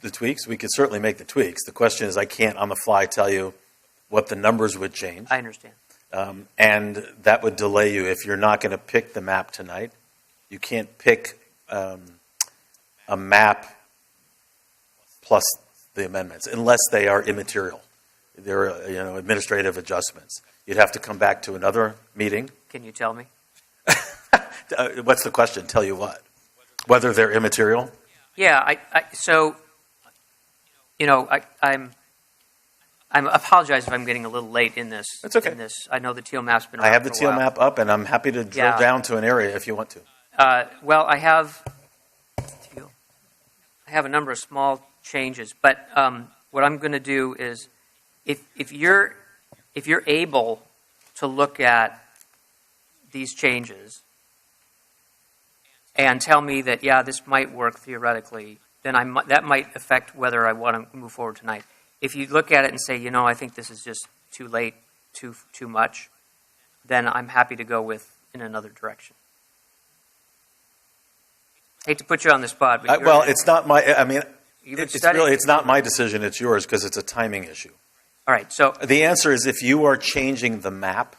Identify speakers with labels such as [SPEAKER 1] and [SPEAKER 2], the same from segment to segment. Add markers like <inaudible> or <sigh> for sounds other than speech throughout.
[SPEAKER 1] the tweaks? We could certainly make the tweaks. The question is, I can't on the fly tell you what the numbers would change.
[SPEAKER 2] I understand.
[SPEAKER 1] Um, and that would delay you if you're not going to pick the map tonight. You can't pick um, a map plus the amendments unless they are immaterial. They're uh, you know administrative adjustments. You'd have to come back to another meeting.
[SPEAKER 2] Can you tell me?
[SPEAKER 1] Uh, what's the question? Tell you what? Whether they're immaterial?
[SPEAKER 2] Yeah, I, I so, you know, I, I'm, I'm I apologize if I'm getting a little late in this.
[SPEAKER 1] That's okay.
[SPEAKER 2] In this, I know the teal map's been.
[SPEAKER 1] I have the
[SPEAKER 2] around for a
[SPEAKER 1] teal
[SPEAKER 2] while.
[SPEAKER 1] map up, and I'm happy to drill
[SPEAKER 2] Yeah.
[SPEAKER 1] down to an area if you want to.
[SPEAKER 2] Uh, well, I have, teal. I have a number of small changes, but um, what I'm going to do is, if if you're if you're able to look at these changes and tell me that yeah, this might work theoretically, then I mi- that might affect whether I want to move forward tonight. If you look at it and say, you know, I think this is just too late, too too much, then I'm happy to go with in another direction. Hate to put you on the spot, but
[SPEAKER 1] I,
[SPEAKER 2] you're-
[SPEAKER 1] Uh, well, it's not my. I mean,
[SPEAKER 2] you've been
[SPEAKER 1] it's
[SPEAKER 2] studying.
[SPEAKER 1] really it's not my decision. It's yours because it's a timing issue.
[SPEAKER 2] All right, so
[SPEAKER 1] The answer is if you are changing the map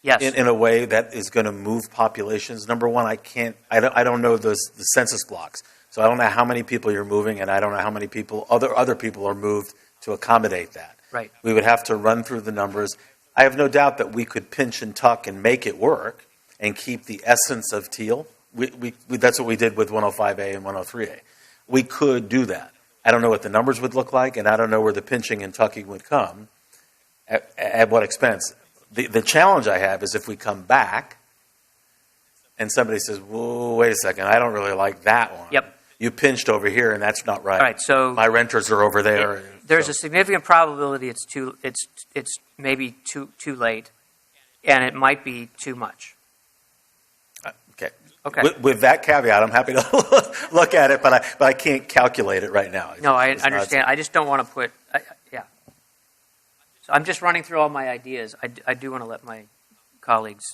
[SPEAKER 2] yes,
[SPEAKER 1] in, in a way that is going to move populations. Number one, I can't. I don't. I don't know those the census blocks, so I don't know how many people you're moving, and I don't know how many people other other people are moved to accommodate that.
[SPEAKER 2] right.
[SPEAKER 1] We would have to run through the numbers. I have no doubt that we could pinch and tuck and make it work and keep the essence of teal. We, we, we, that's what we did with 105A and 103A. We could do that. I don't know what the numbers would look like, and I don't know where the pinching and tucking would come, at, at what expense. The, the challenge I have is if we come back and somebody says, whoa, wait a second, I don't really like that one.
[SPEAKER 2] Yep.
[SPEAKER 1] You pinched over here, and that's not right.
[SPEAKER 2] All right, so
[SPEAKER 1] My renters are over there.
[SPEAKER 2] there's
[SPEAKER 1] so-
[SPEAKER 2] a significant probability it's too it's it's maybe too too late, and it might be too much.
[SPEAKER 1] Okay.
[SPEAKER 2] Okay.
[SPEAKER 1] With, with that caveat, I'm happy to <laughs> look at it, but I, but I can't calculate it right now.
[SPEAKER 2] No, I
[SPEAKER 1] It's not-
[SPEAKER 2] understand. I just don't want to put. I, I- yeah. So I'm just running through all my ideas. I, d- I do want to let my colleagues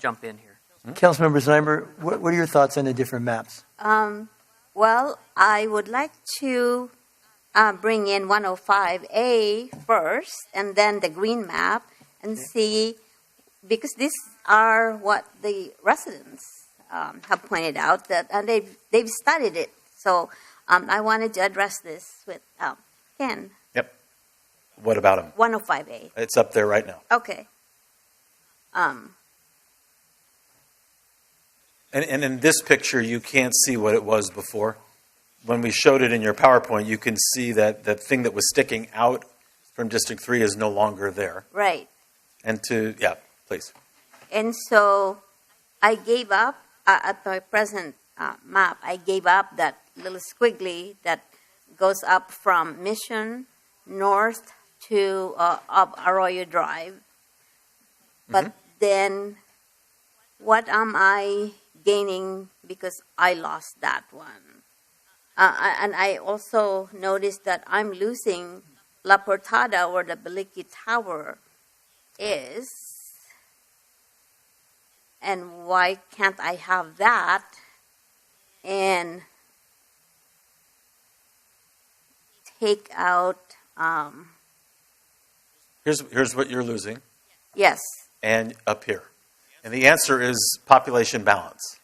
[SPEAKER 2] jump in here.
[SPEAKER 3] Councilmember Snyder, what, what are your thoughts on the different maps?
[SPEAKER 4] Um, well, I would like to uh, bring in 105A first and then the green map and see, because these are what the residents um, have pointed out that and they've, they've studied it. So um, I wanted to address this with um, Ken,
[SPEAKER 1] What about them?
[SPEAKER 4] 105A.
[SPEAKER 1] It's up there right now.
[SPEAKER 4] Okay. Um,
[SPEAKER 1] And, and in this picture, you can't see what it was before. When we showed it in your PowerPoint, you can see that that thing that was sticking out from District 3 is no longer there.
[SPEAKER 4] right.
[SPEAKER 1] And to, yeah, please.
[SPEAKER 4] And so I gave up uh, at my present uh, map. I gave up that little squiggly that goes up from Mission north to uh, up Arroyo Drive. But then, what am I gaining because I lost that one? Uh, I- and I also noticed that I'm losing La Portada, where the Beliki Tower is and why can't I have that? And take out, um,
[SPEAKER 1] Here's, here's what you're losing,
[SPEAKER 4] yes,
[SPEAKER 1] and up here. And the answer is population balance.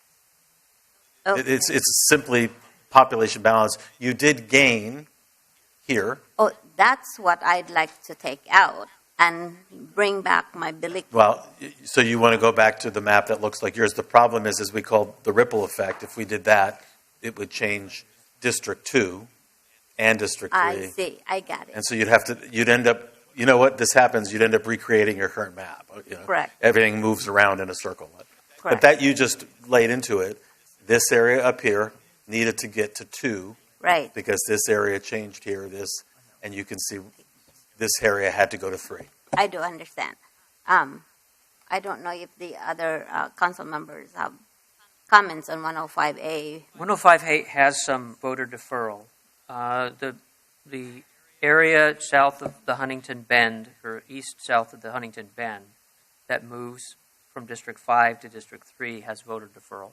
[SPEAKER 4] oh,
[SPEAKER 1] It- It's, it's simply population balance. You did gain here.
[SPEAKER 4] oh, that's what I'd like to take out and bring back my Billy.
[SPEAKER 1] Well, y- so you want to go back to the map that looks like yours. The problem is, is we call the ripple effect. If we did that, it would change District Two and District
[SPEAKER 4] I
[SPEAKER 1] Three.
[SPEAKER 4] see, I got it.
[SPEAKER 1] And so you'd have to, you'd end up, you know what, this happens, you'd end up recreating your current map. uh, you know.
[SPEAKER 4] Correct.
[SPEAKER 1] Everything moves around in a circle. But
[SPEAKER 4] Correct.
[SPEAKER 1] that you just laid into it, this area up here needed to get to two
[SPEAKER 4] Right,
[SPEAKER 1] because this area changed here, this, and you can see this area had to go to three.
[SPEAKER 4] I do understand. Um, I don't know if the other, uh, council members have comments on 105A.
[SPEAKER 2] 105 ha- oh has some voter deferral. Uh, the the area south of the Huntington Bend or east south of the Huntington Bend that moves from District 5 to District 3 has voter deferral.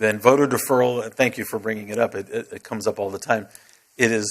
[SPEAKER 1] Then voter deferral, and thank you for bringing it up, it, it, it comes up all the time. It is